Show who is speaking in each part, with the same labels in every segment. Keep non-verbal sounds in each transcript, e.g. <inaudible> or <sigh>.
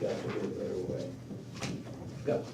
Speaker 1: got to get a better way. Go.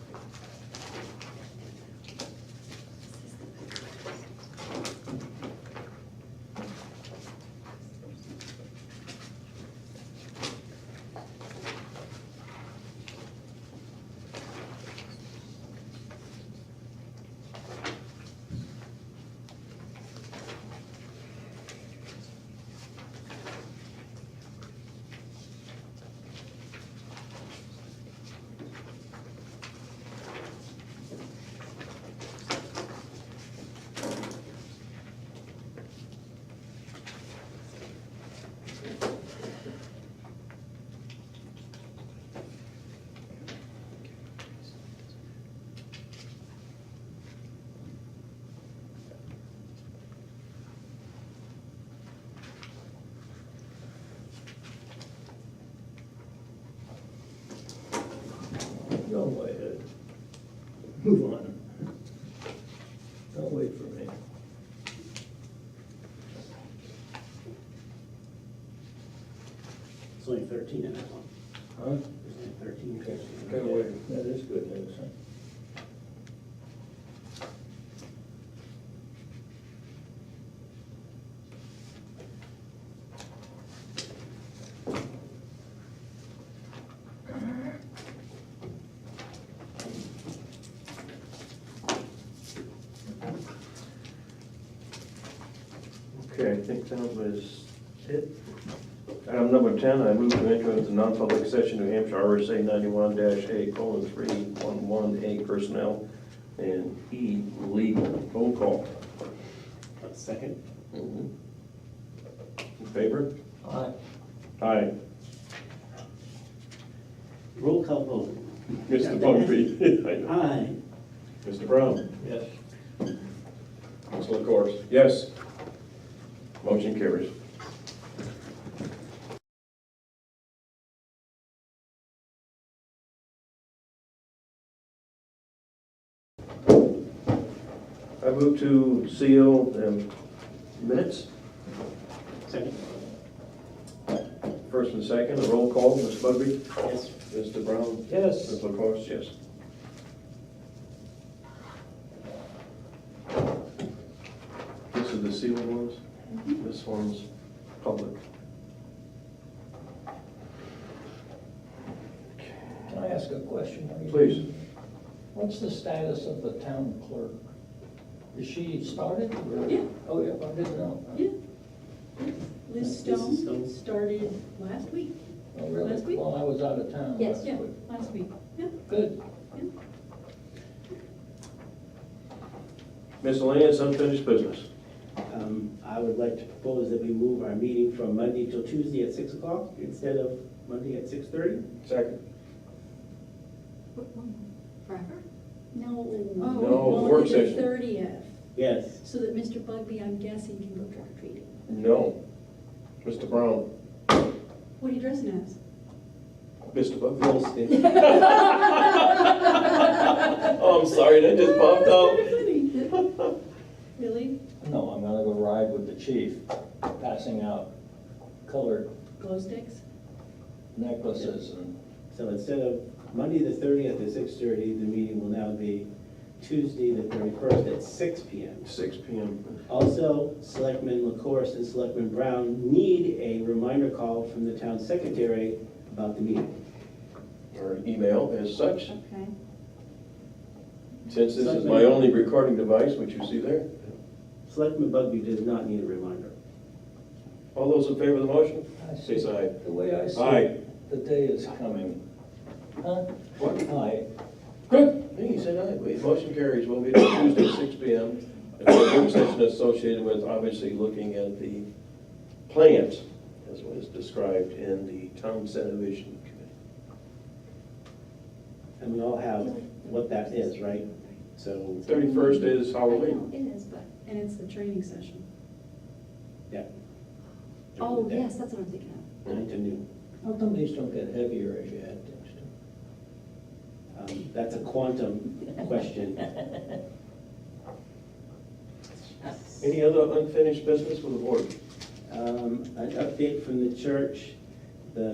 Speaker 1: No way, uh, move on. Don't wait for me.
Speaker 2: It's only thirteen in that one.
Speaker 1: Huh?
Speaker 2: There's only thirteen.
Speaker 1: Okay,
Speaker 2: pages in
Speaker 1: gotta
Speaker 2: there.
Speaker 1: wait. That is good news, huh?
Speaker 3: Okay, I think that was it. Item number 10, I move to enter into non-public session, New Hampshire RSA 91-A colon 311A personnel and E legal. Roll call.
Speaker 2: Uh, Second?
Speaker 3: In favor?
Speaker 1: All right.
Speaker 3: Aye.
Speaker 2: Roll call vote.
Speaker 3: Mr. <laughs> Bugby?
Speaker 2: Aye.
Speaker 3: Mr. Brown?
Speaker 1: Yes.
Speaker 3: Mr. LaCourse? Yes. Motion carries. I move to seal the minutes,
Speaker 2: Second?
Speaker 3: first and second, a roll call, Ms. Bugby?
Speaker 2: Yes.
Speaker 3: Mr. Brown?
Speaker 1: Yes.
Speaker 3: Ms. LaCourse, yes. This is the sealed ones?
Speaker 1: Mm-hmm.
Speaker 3: This one's public.
Speaker 1: Can I ask a question?
Speaker 3: Please.
Speaker 1: What's the status of the town clerk? Is she started? or-
Speaker 4: Yeah.
Speaker 1: Oh, yeah, I didn't know.
Speaker 4: Yeah.
Speaker 2: Mrs.
Speaker 4: Liz Stone
Speaker 2: Stone.
Speaker 4: started last week.
Speaker 1: Oh, really?
Speaker 4: Last week?
Speaker 1: Well, I was out of town last
Speaker 4: Yeah,
Speaker 1: week.
Speaker 4: last week. Yeah.
Speaker 1: Good.
Speaker 3: Miscellaneous unfinished business.
Speaker 2: Um, I would like to propose that we move our meeting from Monday till Tuesday at six o'clock instead of Monday at six thirty.
Speaker 3: Second.
Speaker 4: Forever? No.
Speaker 3: No, work session.
Speaker 4: The thirtieth,
Speaker 2: Yes.
Speaker 4: so that Mr. Bugby, I'm guessing, can go trick or treating.
Speaker 3: No. Mr. Brown?
Speaker 4: What are you dressing as?
Speaker 3: Mr. Bugby? <laughs> Oh, I'm sorry, that just popped up.
Speaker 4: up. Really?
Speaker 1: No, I'm gonna go ride with the chief, passing out colored
Speaker 4: Glow sticks?
Speaker 1: necklaces and
Speaker 2: So instead of Monday the thirtieth at six thirty, the meeting will now be Tuesday the thirty-first at six P M.
Speaker 3: Six P M.
Speaker 2: Also, Selectman LaCourse and Selectman Brown need a reminder call from the town secretary about the meeting.
Speaker 3: Or email as such.
Speaker 4: Okay.
Speaker 3: Since this is my only recording device, which you see there.
Speaker 2: Selectman Bugby does not need a reminder.
Speaker 3: All those in favor of the motion?
Speaker 1: I see.
Speaker 3: Say aye.
Speaker 1: The way I see
Speaker 3: Aye.
Speaker 1: it, the day is coming. Huh?
Speaker 3: What?
Speaker 1: Aye.
Speaker 3: Good. Hey, you said aye. Wait, motion carries. We'll be there Tuesday at six P M. And the work session associated with obviously looking at the plant as was described in the town subdivision committee.
Speaker 2: And we all have what that is, right? So,
Speaker 3: Thirty-first is
Speaker 4: I
Speaker 3: Halloween.
Speaker 4: know It is, but, and it's the training session.
Speaker 2: yeah.
Speaker 4: Oh, yes, that's what I'm thinking of.
Speaker 2: Nine to noon.
Speaker 1: How come these don't get heavier as you add things to? them?
Speaker 2: Um, That's a quantum question.
Speaker 3: Any other unfinished business with the board?
Speaker 2: Um, An update from the church.